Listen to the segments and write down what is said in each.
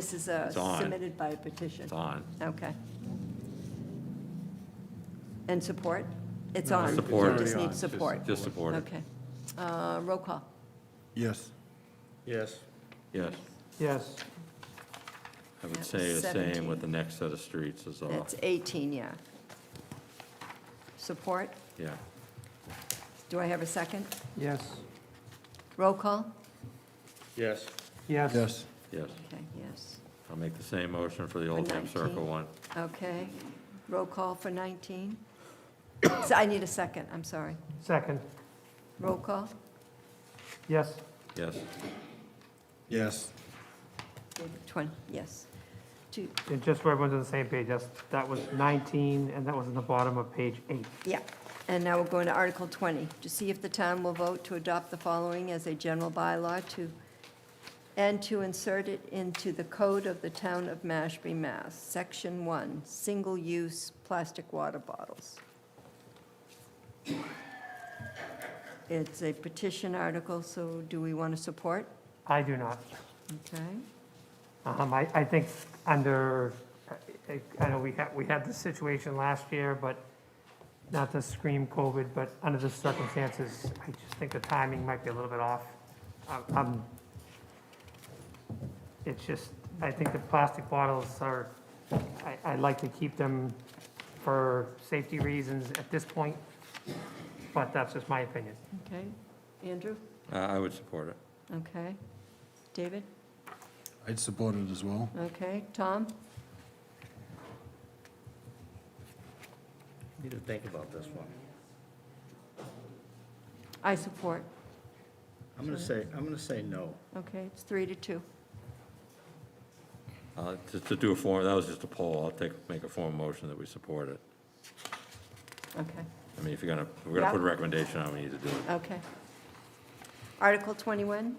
This is uh, It's on. submitted by petition? It's on. Okay. And support? It's on. Support. You just Already need on. support. Just support it. Okay. Uh, Roll call. Yes. Yes. Yes. Yes. I That would say was the same 17. with the next set of streets is all. That's 18, yeah. Support? Yeah. Do I have a second? Yes. Roll call? Yes. Yes. Yes. Yes. Okay, yes. I'll make the same motion for the Old Time 19. Circle one. Okay. Roll call for 19? So I need a second, I'm sorry. Second. Roll call? Yes. Yes. Yes. 20, yes. Two, And just so everyone's on the same page, that's, that was 19, and that was in the bottom of page eight. Yeah, and now we're going to Article 20, to see if the town will vote to adopt the following as a general bylaw to, and to insert it into the code of the town of Mashpee, Mass. Section 1, single-use plastic water bottles. It's a petition article, so do we want to support? I do not. Okay. Um, I, I think under, I- I- I know we had, we had this situation last year, but not to scream COVID, but under the circumstances, I just think the timing might be a little bit off. Um, um, It's just, I think the plastic bottles are, I, I like to keep them for safety reasons at this point, but that's just my opinion. Okay. Andrew? I I would support it. Okay. David? I'd support it as well. Okay. Tom? Need to think about this one. I support. I'm gonna say, I'm gonna say no. Okay, it's three to two. Uh, Just to do a form, that was just a poll. I'll take, make a formal motion that we support it. Okay. I mean, if you're gonna, if we're gonna Yeah. put a recommendation on, we need to do it. Okay. Article 21,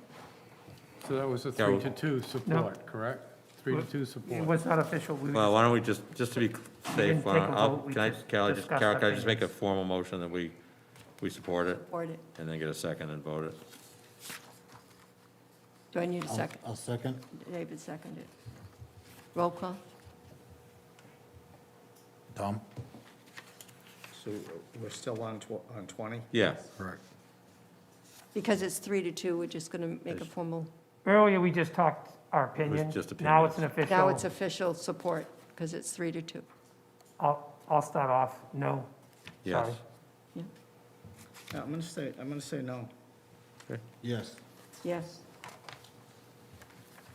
So that was a Yeah, we- three to two support, correct? Three to two It support. was not official, we, Well, why don't we just, just to be safe, didn't why don't- take a I'll- vote, we can I, just Cal, just, discussed Carol, our can I just make a opinions. formal motion that we, we support it or do and then get a second and vote it? do I need a second? I'll second. David seconded. Roll call? Tom? So we're still on tw- on 20? Yeah. Correct. Because it's three to two, we're just going to make a formal, earlier we just talked our opinion. just Now it's an opinions. official. now it's official support, because it's three to two. I'll, I'll start off, no. Yes. Sorry. Yeah, I'm gonna say, I'm gonna say no. Yes. Yes?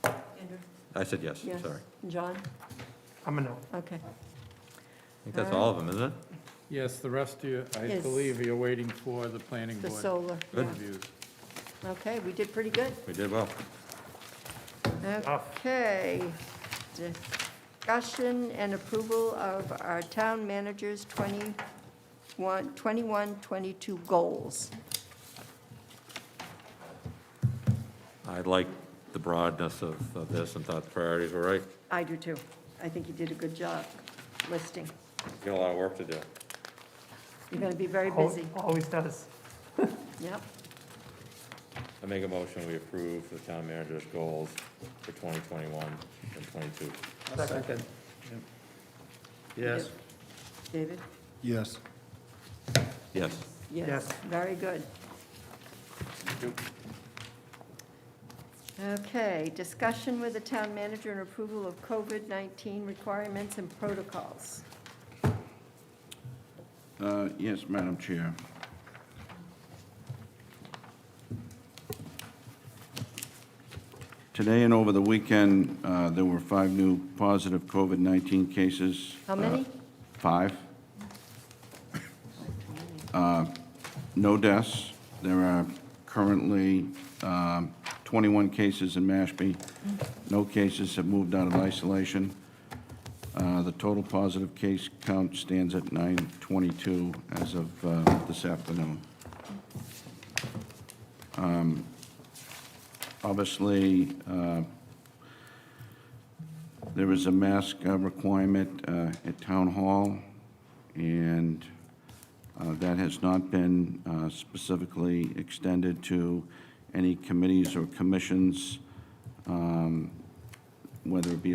Andrew? I said yes, sorry. Yes. I John? I'm a no. Okay. think that's all of them, isn't it? Yes, the rest of you, I Is- believe you're waiting for the planning The board solar, yeah. reviews. Okay, we did pretty good. We did well. Okay. Discussion and approval of our town manager's 21, 21, 22 goals. I liked the broadness of, of this and thought the priorities were right. I do too. I think you did a good job listing. Got a lot of work to do. You're going to be very Al- busy. Always does. Yep. I make a motion, we approve the town manager's goals for 2021 and 22. Second. Yes. David? Yes. Yes. Yes. Very good. Okay, discussion with the town manager and approval of COVID-19 requirements and protocols. Uh, Yes, Madam Chair. Today and over the weekend, uh, there were five new positive COVID-19 cases. How many? Uh, Five. Uh, No deaths. There are currently um, 21 cases in Mashpee. No cases have moved out of isolation. Uh, The total positive case count stands at 922 as of uh, this afternoon. Um, Obviously, uh, there is a mask uh, requirement uh, at Town Hall, and uh, that has not been uh, specifically extended to any committees or commissions. Um, whether it be a